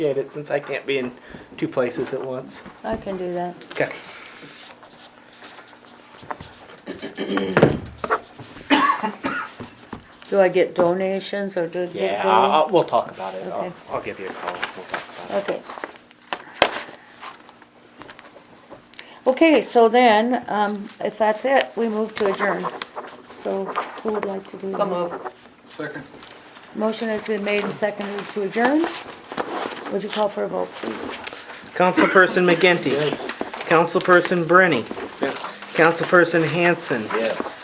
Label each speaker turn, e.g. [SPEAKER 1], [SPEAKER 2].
[SPEAKER 1] appreciate it since I can't be in two places at once.
[SPEAKER 2] I can do that.
[SPEAKER 1] Okay.
[SPEAKER 2] Do I get donations or do?
[SPEAKER 1] Yeah, I'll, I'll- we'll talk about it. I'll,
[SPEAKER 2] Okay.
[SPEAKER 1] I'll give you a call. We'll talk about it.
[SPEAKER 2] Okay. Okay, so then, um, if that's it, we move to adjourn. So who would like to do? that?
[SPEAKER 3] Some of,
[SPEAKER 4] Second.
[SPEAKER 2] Motion has been made and seconded to adjourn. Would you call for a vote, please?
[SPEAKER 5] Councilperson McGinty. Councilperson Brenny. Councilperson Hanson.
[SPEAKER 1] Yeah.